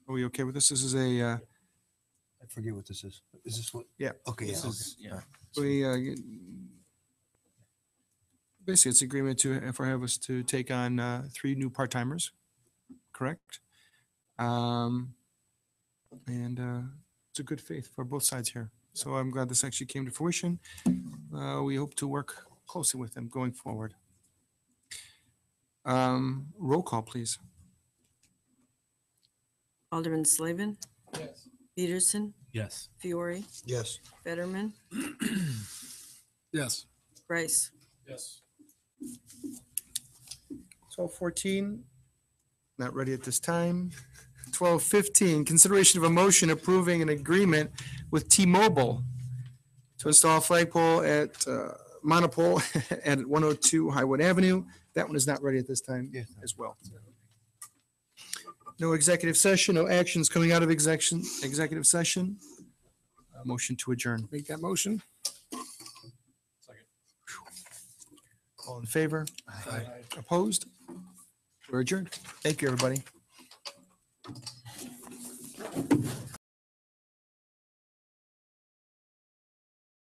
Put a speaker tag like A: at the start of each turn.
A: Are we okay with this? This is a, uh,
B: I forget what this is. Is this what?
A: Yeah,
B: Okay, yeah,
A: this
B: okay.
A: is,
B: all
A: yeah.
B: right.
A: We, uh, get- basically, it's agreement to, for Havas to take on, uh, three new part-timers, correct? Um, and, uh, it's a good faith for both sides here. So I'm glad this actually came to fruition. Uh, we hope to work closely with them going forward. Um, roll call, please.
C: Alderman Slavin. Peterson,
D: Yes.
C: Fiore,
B: Yes.
C: Fetterman,
D: Yes.
C: Rice.
D: Yes.
A: Twelve fourteen, not ready at this time. Twelve fifteen, consideration of a motion approving an agreement with T-Mobile to install a flagpole at uh, Monopole at one oh two Highwood Avenue. That one is not ready at this time
B: Yes.
A: as well. No executive session, no actions coming out of execution, executive session. Uh, Motion to adjourn.
D: Make that motion.
A: All in favor? Opposed? We're adjourned. Thank you, everybody.